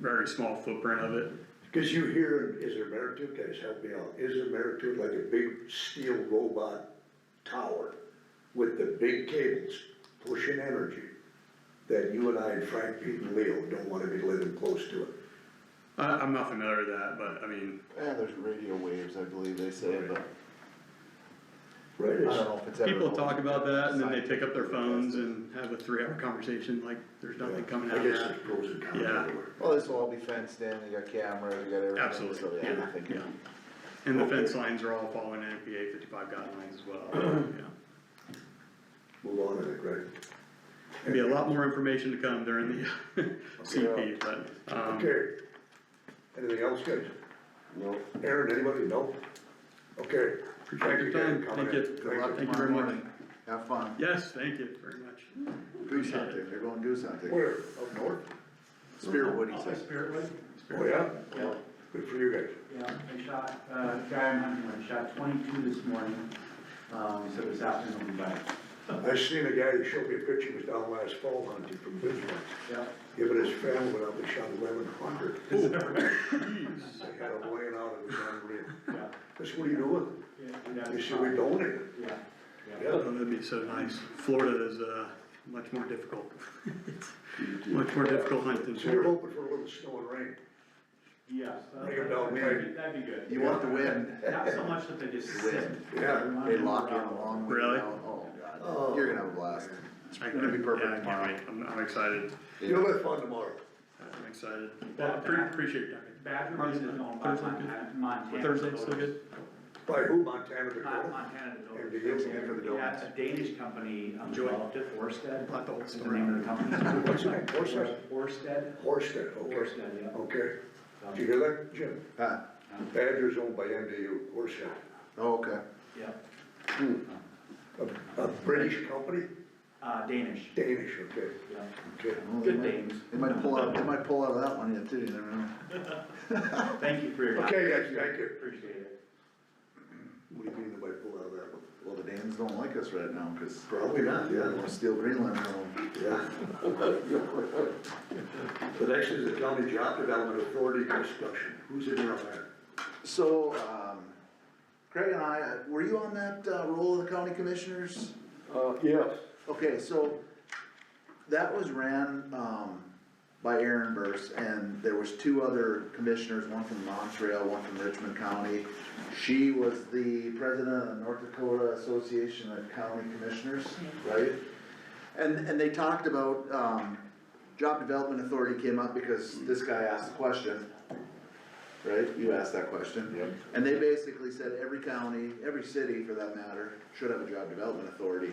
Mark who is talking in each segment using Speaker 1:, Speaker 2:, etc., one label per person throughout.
Speaker 1: very small footprint of it.
Speaker 2: Cause you hear, is there merit to it, guys, help me out, is there merit to it, like a big steel robot tower with the big cables pushing energy that you and I and Frank, Pete and Leo don't wanna be living close to it.
Speaker 1: I, I'm not familiar with that, but I mean,
Speaker 3: Yeah, Eh, there's radio waves, I believe they say, but
Speaker 2: Right,
Speaker 3: I don't
Speaker 2: it's-
Speaker 3: know if it's ever.
Speaker 1: people talk about that and then they pick up their phones and have a three-hour conversation like there's nothing coming out
Speaker 2: I
Speaker 1: of
Speaker 2: guess
Speaker 1: that.
Speaker 2: there's pros and cons
Speaker 1: Yeah.
Speaker 2: everywhere.
Speaker 3: Well, this will all be fenced in, you got cameras, you got everything. so,
Speaker 1: Absolutely,
Speaker 3: I
Speaker 1: yeah,
Speaker 3: think-
Speaker 1: yeah. And the fence lines are all following NFPA fifty-five guidelines as well, yeah.
Speaker 2: Move on, I think, right?
Speaker 1: There'll Be a lot more information to come during the CP, but, um,
Speaker 2: Okay. Anything else, guys?
Speaker 3: Nope.
Speaker 2: Aaron, anybody? No? Okay. Thank you,
Speaker 1: appreciate your
Speaker 2: Dan.
Speaker 1: time,
Speaker 2: coming
Speaker 1: thank
Speaker 2: in.
Speaker 1: you,
Speaker 2: Thank you.
Speaker 1: thank you very much.
Speaker 3: Have fun,
Speaker 1: Yes, thank you very much.
Speaker 3: do something, they're gonna do something.
Speaker 2: Where, up north?
Speaker 3: Spirit Woody says.
Speaker 2: Oh, yeah?
Speaker 4: Yeah,
Speaker 2: Good for you guys.
Speaker 4: yeah, I shot, uh, guy I'm hunting with, shot twenty-two this morning, um, so this afternoon we'll be back.
Speaker 2: I seen a guy who showed me a picture, he was down last fall hunting from Bismarck.
Speaker 4: Yeah.
Speaker 2: Him and his family went out and shot eleven hundred. They had him laying out in the unreal.
Speaker 4: Yeah,
Speaker 2: I said, what are you doing?
Speaker 4: yeah,
Speaker 2: He said, we donated.
Speaker 4: yeah, yeah.
Speaker 2: Yeah.
Speaker 1: Oh, that'd be so nice. Florida is, uh, much more difficult. It's Much more difficult hunt than
Speaker 2: So you're
Speaker 1: Florida.
Speaker 2: hoping for a little snow and rain.
Speaker 4: Yes. uh,
Speaker 2: Bring 'em down,
Speaker 4: That'd be- that'd be good.
Speaker 3: You want the wind,
Speaker 4: Not so much that they just sit. Um,
Speaker 3: Wind.
Speaker 2: Yeah.
Speaker 3: they lock in a long way
Speaker 1: Really?
Speaker 3: down. Oh,
Speaker 2: Oh.
Speaker 3: God, you're gonna have a blast. It's gonna be
Speaker 1: Yeah, I
Speaker 3: perfect
Speaker 1: can't
Speaker 3: tomorrow.
Speaker 1: wait. I'm, I'm excited.
Speaker 2: You'll have fun tomorrow.
Speaker 1: I'm excited. Well, I pre- appreciate it, Duncan.
Speaker 4: Badger Ridge
Speaker 1: Martin's
Speaker 4: is
Speaker 1: not-
Speaker 4: owned by
Speaker 1: Thursday's good?
Speaker 4: Montana, Montana.
Speaker 1: Thursday, still good?
Speaker 2: By who? Montana
Speaker 4: Mon-
Speaker 2: Dakota?
Speaker 4: Montana
Speaker 2: And
Speaker 4: Dakota.
Speaker 2: the Indians for the
Speaker 4: Yeah,
Speaker 2: donuts.
Speaker 4: a Danish company, um,
Speaker 1: Joy.
Speaker 4: developed it, Orsted.
Speaker 1: Not the whole
Speaker 4: is
Speaker 1: story.
Speaker 4: name of the company.
Speaker 2: What's his name? Horsted?
Speaker 4: Orsted,
Speaker 2: Horsted, okay. Oh,
Speaker 4: Orsted, yeah.
Speaker 2: Okay.
Speaker 4: Um,
Speaker 2: Did you hear that, Jim?
Speaker 3: Huh,
Speaker 2: Badger's owned by MDU, Horsted.
Speaker 3: oh, okay.
Speaker 4: Yeah,
Speaker 2: A, a British company?
Speaker 4: uh, Danish,
Speaker 2: Danish, okay,
Speaker 4: yeah.
Speaker 2: okay.
Speaker 3: Well, they
Speaker 4: Good
Speaker 3: might-
Speaker 4: names.
Speaker 3: They might pull out, they might pull out of that one yet too, you never know.
Speaker 4: Thank you for your time.
Speaker 2: Okay, guys, thank you.
Speaker 4: Appreciate it.
Speaker 2: What do you mean by pull out of that one?
Speaker 3: Well, the Danes don't like us right now, cause
Speaker 2: Probably not,
Speaker 3: they
Speaker 2: yeah,
Speaker 3: wanna steal Greenland from them.
Speaker 2: yeah. The next is the county job development authority discussion. Who's in there on that?
Speaker 3: So, um, Craig and I, uh, were you on that, uh, roll of the county commissioners?
Speaker 5: Uh, yes,
Speaker 3: Okay, so that was ran, um, by Aaron Burse and there was two other commissioners, one from Montreal, one from Richmond County. She was the president of the North Dakota Association of County Commissioners, right? And, and they talked about, um, job development authority came up because this guy asked the question, right? You asked that question.
Speaker 5: Yep.
Speaker 3: And they basically said every county, every city for that matter, should have a job development authority.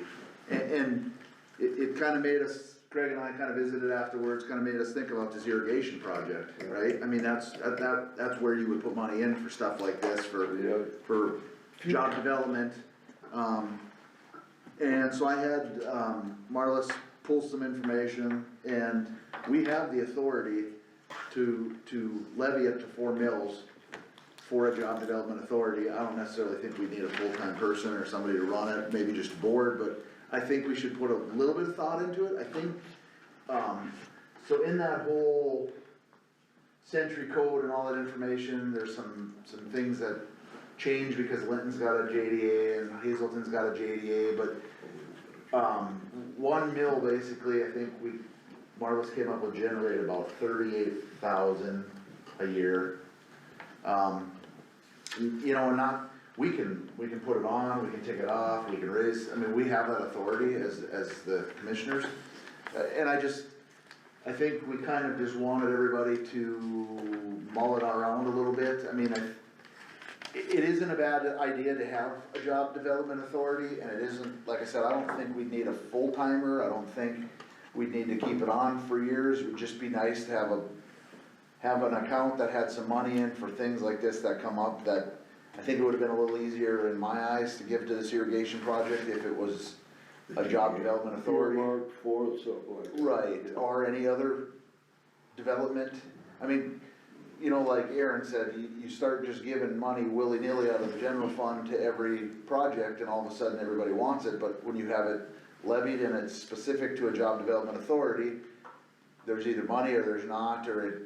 Speaker 3: And, and it, it kinda made us, Craig and I kinda visited afterwards, kinda made us think about this irrigation project, right? I mean, that's, that- that, that's where you would put money in for stuff like this, for,
Speaker 5: Yep.
Speaker 3: for job development. Um, and so I had, um, Marlis pull some information, and we have the authority to, to levy up to four mills for a job development authority. I don't necessarily think we need a full-time person or somebody to run it, maybe just a board, but I think we should put a little bit of thought into it, I think. Um, so in that whole century code and all that information, there's some, some things that change because Linton's got a JDA and Hazelton's got a JDA, but um, one mill, basically, I think we, Marlis came up with generate about thirty-eight thousand a year. Um, you know, and not, we can, we can put it on, we can take it off, we can raise, I mean, we have that authority as, as the commissioners. Uh, And I just, I think we kind of just wanted everybody to mull it around a little bit, I mean, I, it, it isn't a bad idea to have a job development authority, and it isn't, like I said, I don't think we'd need a full timer, I don't think we'd need to keep it on for years, it would just be nice to have a, have an account that had some money in for things like this that come up, that I think it would've been a little easier in my eyes to give to this irrigation project if it was a job development authority.
Speaker 5: earmarked for it, something like that.
Speaker 3: Right, or any other development, I mean, you know, like Aaron said, you, you start just giving money willy-nilly out of the general fund to every project, and all of a sudden, everybody wants it, but when you have it levied and it's specific to a job development authority, there's either money or there's not, or it